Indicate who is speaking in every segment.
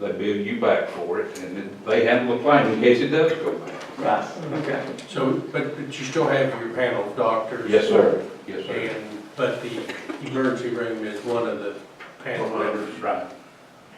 Speaker 1: they bill you back for it, and then they handle the claim in case it does go back.
Speaker 2: Right.
Speaker 3: Okay. So, but, but you still have your panel of doctors?
Speaker 1: Yes, sir. Yes, sir.
Speaker 3: And, but the emergency room is one of the panel members?
Speaker 1: Right.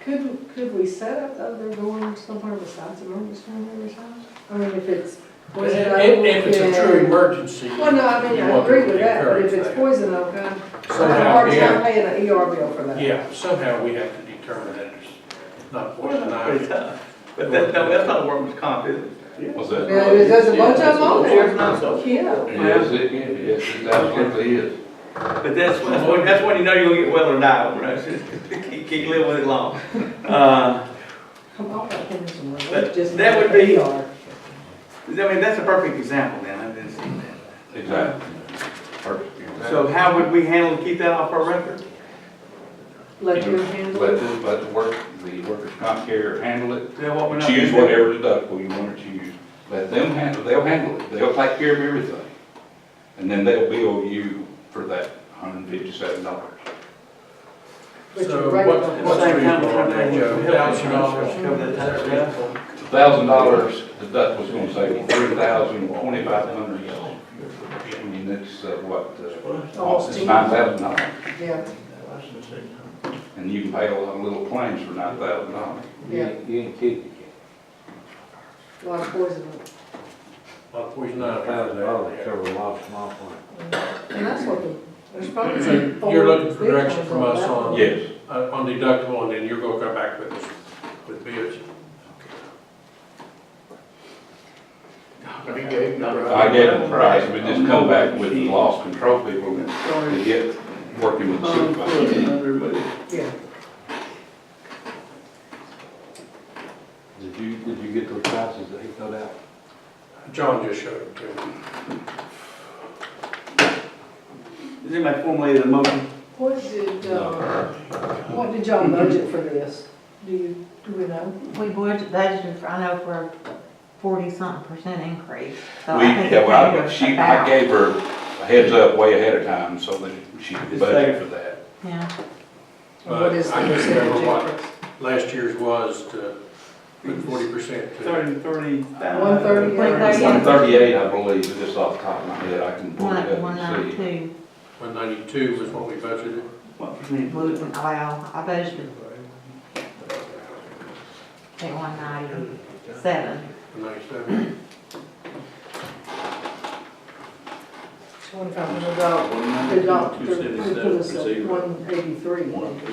Speaker 4: Could, could we set up uh, other doors somewhere besides emergency room every time? I mean, if it's. poison oak,
Speaker 3: If, if it's a true
Speaker 4: yeah.
Speaker 3: emergency.
Speaker 4: uh, Well, no, I mean,
Speaker 3: you
Speaker 4: I
Speaker 3: want
Speaker 4: agree
Speaker 3: them to
Speaker 4: with that, but if
Speaker 3: encourage
Speaker 4: it's
Speaker 3: that.
Speaker 4: poison oak, I'm I'm having a
Speaker 3: Somehow,
Speaker 4: hard
Speaker 3: yeah,
Speaker 4: time paying an ER bill for that.
Speaker 3: yeah, somehow we have to determine that it's not poison
Speaker 2: Pretty
Speaker 3: ivy.
Speaker 2: tough. But that, no, that's not a workman's comp, is it?
Speaker 1: What's that?
Speaker 4: Yeah, there's- there's a bunch of them on there.
Speaker 2: There's not so.
Speaker 4: Yeah.
Speaker 1: Yes, it, yes, it absolutely is.
Speaker 2: But that's when, that's when- that's when you know you're gonna get well or die, right? Keep, keep living with it long. Uh,
Speaker 4: Come on, I can do some more.
Speaker 2: But
Speaker 4: Just
Speaker 2: that would
Speaker 4: not the
Speaker 2: be-
Speaker 4: ER.
Speaker 2: I mean, that's a perfect example, then, I've been seeing that.
Speaker 1: Exactly. Perfect.
Speaker 2: So how would we handle, to keep that off our record?
Speaker 4: Let you handle
Speaker 1: Let
Speaker 4: it.
Speaker 1: the, let the work, the workers' comp carrier handle it.
Speaker 2: Is that what we're not?
Speaker 1: Choose whatever deductible you want to choose. Let them handle, they'll handle it. They'll take care of everything. And then they'll bill you for that hundred and fifty-seven dollars.
Speaker 4: But
Speaker 3: So
Speaker 4: you're right
Speaker 3: what-
Speaker 4: about
Speaker 3: what's
Speaker 4: that.
Speaker 3: the reason on that, Joe? Thousand dollars.
Speaker 1: Thousand dollars deductible's gonna save you three thousand, twenty-five hundred. I mean, that's uh, what, uh,
Speaker 4: Almost
Speaker 1: it's
Speaker 4: ten.
Speaker 1: nine thousand dollars.
Speaker 4: Yeah,
Speaker 1: And you can pay a lot of little claims for nine thousand dollars.
Speaker 4: yeah,
Speaker 5: You ain't kidding.
Speaker 4: a lot of poison oak.
Speaker 3: Not poison
Speaker 5: Nine
Speaker 3: ivy.
Speaker 5: thousand dollars cover a lot of small claims.
Speaker 4: And that's what the, there's probably some.
Speaker 3: You're looking for
Speaker 4: big ones
Speaker 3: direction from
Speaker 4: on
Speaker 3: us
Speaker 4: that
Speaker 3: on-
Speaker 4: one.
Speaker 1: Yes.
Speaker 3: Uh, on deductible, and then you're gonna come back with, us with bids.
Speaker 6: He gave the price.
Speaker 1: I gave the price, but just come back with the loss control people to get working with the
Speaker 7: Oh,
Speaker 1: supervisor.
Speaker 4: Yeah,
Speaker 5: Did you, did you get those prices that he put out?
Speaker 3: John just showed it to me.
Speaker 2: Is anybody formulated a motion?
Speaker 4: what did, uh, what did y'all budget for this? Do you, do we know?
Speaker 7: We budget- budgeted, for- I know, for a forty-something percent increase, so
Speaker 1: We,
Speaker 7: I think
Speaker 1: yeah,
Speaker 7: it
Speaker 1: well, I-
Speaker 7: covers
Speaker 1: she, I
Speaker 7: about.
Speaker 1: gave her a heads up way ahead of time so that she could budget for that.
Speaker 7: Yeah,
Speaker 4: And what is the
Speaker 3: I just remember
Speaker 4: percentage
Speaker 3: what-
Speaker 4: increase?
Speaker 3: Last year's was to put forty percent to,
Speaker 2: Thirty, thirty thousand?
Speaker 4: One thirty.
Speaker 7: One
Speaker 1: One thirty-eight, I believe, just off the top of my head, I can pull
Speaker 7: one,
Speaker 1: it up
Speaker 7: one
Speaker 1: and see.
Speaker 7: ninety-two,
Speaker 3: one ninety-two was what we budgeted.
Speaker 2: What percentage?
Speaker 7: oh, well, I budgeted. At one ninety-seven,
Speaker 3: Ninety-seven.
Speaker 4: Twenty-five hundred dollars. The doctor, we put us at one eighty-three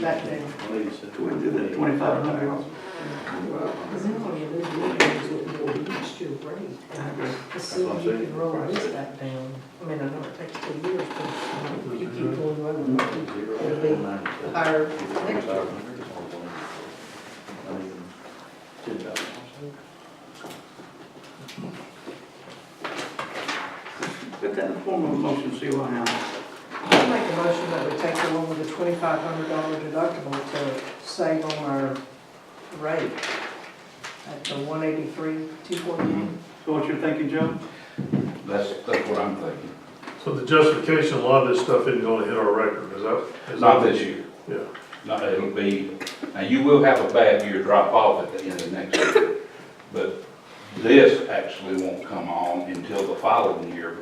Speaker 4: back then.
Speaker 2: Twen- did that 2,500?
Speaker 4: Because then all you do is what you reach your rate. As soon as you can roll this back down, I mean, I know it takes two years, but if you keep going over, it'll be higher next year.
Speaker 2: Put that in the form of a motion, see what happens.
Speaker 4: I make a motion that we take the one with the twenty-five hundred dollar deductible to save on our rate at the one eighty-three, two forty-nine.
Speaker 2: So what you're thinking, Joe?
Speaker 1: That's, that's what I'm thinking.
Speaker 6: So the justification, a lot of this stuff isn't gonna hit our record, is that? is
Speaker 1: Not
Speaker 6: that-
Speaker 1: this year.
Speaker 6: Yeah.
Speaker 1: Not, it'll be, now you will have a bad year drop off at the end of next year, but this actually won't come on until the following year.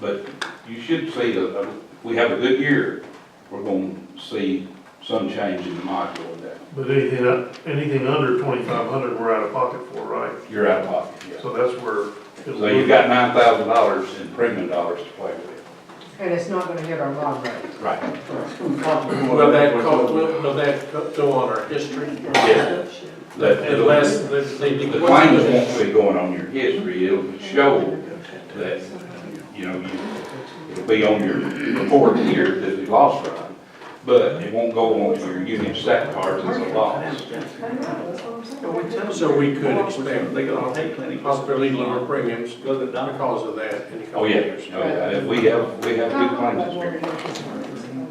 Speaker 1: But you should see, a- a- if we have a good year, we're going to see some change in the module of that.
Speaker 6: But anything, anything under twenty-five hundred, we're out of pocket for, right?
Speaker 1: You're out of pocket, yeah.
Speaker 6: So that's where. it'll-
Speaker 1: So you've got nine thousand dollars in premium dollars to play with.
Speaker 4: And it's not gonna hit our bond rate.
Speaker 1: Right.
Speaker 3: Will that co- will, will that co- go on our history?
Speaker 1: Yeah. That, it'll-
Speaker 3: Unless, the,
Speaker 1: the
Speaker 3: the.
Speaker 1: claims won't be going on your history, it'll show that, you know, you, it'll be on your report here that you lost from. But it won't go on to your unit stat cards as a loss.
Speaker 4: I know, that's what I'm saying.
Speaker 2: So we tell-
Speaker 3: So we could expect-
Speaker 2: They got a pay clinic.
Speaker 3: Possibly lower premiums
Speaker 2: Go to the doctor.
Speaker 3: because of that in the
Speaker 1: Oh,
Speaker 3: coming
Speaker 1: yeah,
Speaker 3: years.
Speaker 1: oh, yeah, if we have, we have good claims experience.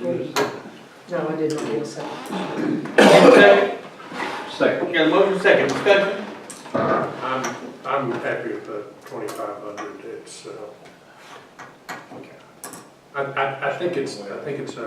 Speaker 4: No, I didn't get a second.
Speaker 2: Second,
Speaker 1: Second.
Speaker 2: we got a motion, second discussion.
Speaker 3: I'm, I'm happy with the twenty-five hundred, it's, uh, I, I, I think it's, I think it's a